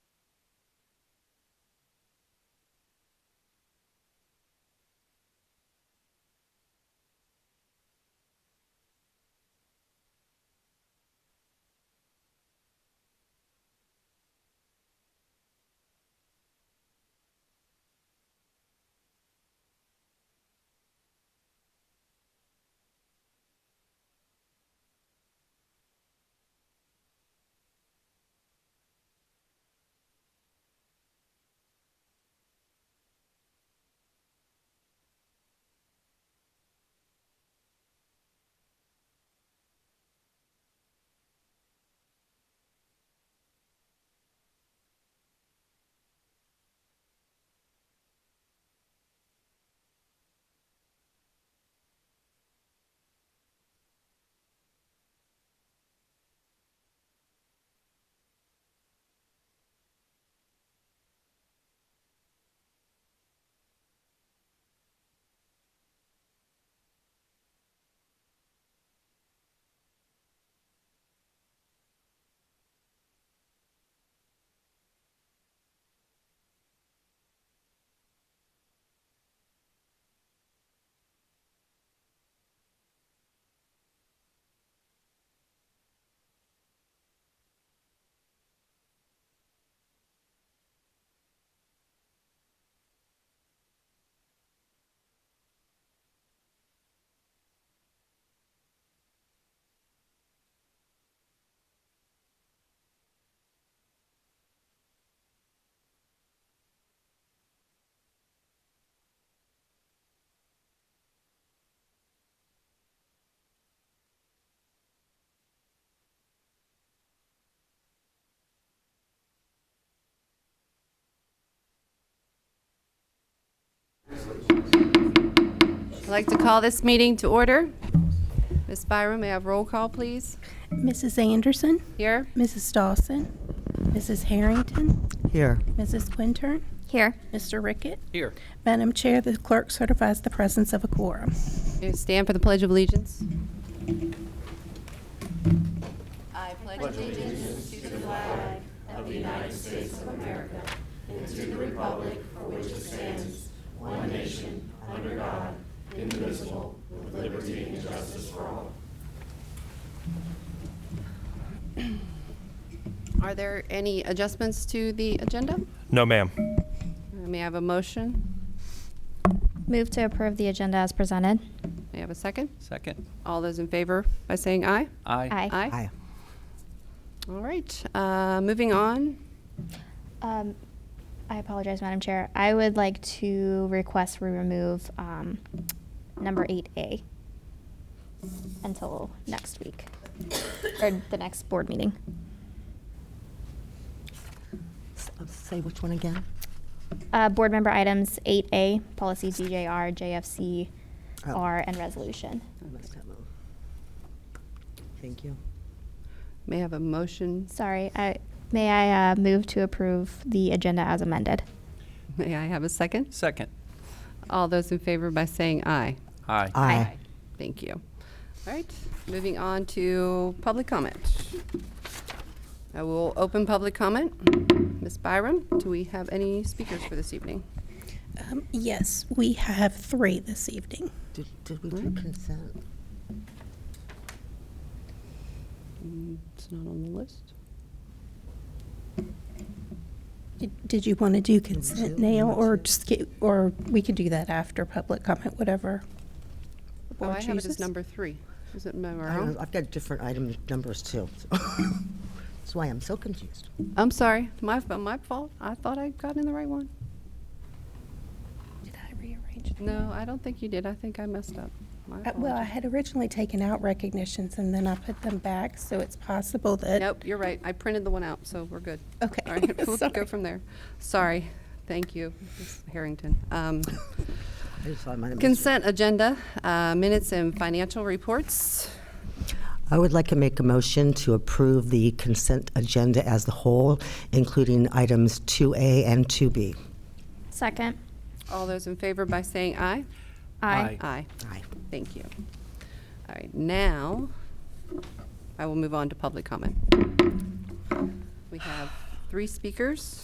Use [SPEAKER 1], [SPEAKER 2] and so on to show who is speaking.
[SPEAKER 1] I'd like to call this meeting to order. Ms. Byram, may I have roll call, please?
[SPEAKER 2] Mrs. Anderson,
[SPEAKER 1] Here?
[SPEAKER 2] Mrs. Dawson, Mrs. Harrington,
[SPEAKER 3] Here.
[SPEAKER 2] Mrs. Quintern,
[SPEAKER 4] Here.
[SPEAKER 2] Mr. Rickett.
[SPEAKER 5] Here.
[SPEAKER 2] Madam Chair, the clerk certifies the presence of a quorum.
[SPEAKER 1] You Stand for the Pledge of Allegiance. I pledge allegiance Are there any adjustments to the agenda?
[SPEAKER 6] No, ma'am.
[SPEAKER 1] Uh, May I have a motion?
[SPEAKER 4] Move to approve the agenda as presented.
[SPEAKER 1] May I have a second?
[SPEAKER 5] Second.
[SPEAKER 1] All those in favor by saying aye?
[SPEAKER 5] Aye.
[SPEAKER 4] Aye.
[SPEAKER 3] Aye.
[SPEAKER 1] All right, uh, moving on.
[SPEAKER 4] Um, I apologize, Madam Chair. I would like to request we remove um, number 8A until next week, or the next board meeting.
[SPEAKER 3] uh, Say which one again?
[SPEAKER 4] Uh, Board member items 8A, policy DJR, JFC,
[SPEAKER 3] Oh.
[SPEAKER 4] R, and resolution.
[SPEAKER 3] Thank you.
[SPEAKER 1] May I have a motion?
[SPEAKER 4] Sorry, I- may I uh, move to approve the agenda as amended?
[SPEAKER 1] May I have a second?
[SPEAKER 5] Second.
[SPEAKER 1] All those in favor by saying aye?
[SPEAKER 5] Aye.
[SPEAKER 3] Aye.
[SPEAKER 1] Thank you. All right, moving on to public comment. I will open public comment. Ms. Byram, do we have any speakers for this evening?
[SPEAKER 2] Um, Yes, we have three this evening.
[SPEAKER 3] Did, did we do consent?
[SPEAKER 1] Mm, It's not on the list.
[SPEAKER 2] Did- Did you want to do consent
[SPEAKER 1] Mm-hmm.
[SPEAKER 2] now, or just, get- or we could do that after public comment, whatever? the
[SPEAKER 1] Oh,
[SPEAKER 2] board
[SPEAKER 1] I have it as
[SPEAKER 2] chooses?
[SPEAKER 1] number three. Is it
[SPEAKER 3] I don't
[SPEAKER 1] number?
[SPEAKER 3] know, I've got different item numbers too. That's why I'm so confused.
[SPEAKER 1] I'm sorry, my, my fault. I thought I got in the right one.
[SPEAKER 2] Did I rearrange? them?
[SPEAKER 1] No, I don't think you did. I think I messed up. My
[SPEAKER 2] Uh, Well, I
[SPEAKER 1] apologies.
[SPEAKER 2] had originally taken out recognitions, and then I put them back, so it's possible that.
[SPEAKER 1] Nope, you're right. I printed the one out, so we're good.
[SPEAKER 2] Okay,
[SPEAKER 1] All right, we'll
[SPEAKER 2] sorry.
[SPEAKER 1] go from there. Sorry. Thank you, Ms. Harrington. Um,
[SPEAKER 3] I just thought I might have missed it.
[SPEAKER 1] Consent agenda, uh, minutes and financial reports.
[SPEAKER 3] I would like to make a motion to approve the consent agenda as the whole, including items 2A and 2B.
[SPEAKER 4] Second.
[SPEAKER 1] All those in favor by saying aye?
[SPEAKER 5] Aye.
[SPEAKER 1] Aye.
[SPEAKER 3] Aye.
[SPEAKER 1] Thank you. All right, now, I will move on to public comment. We have three speakers.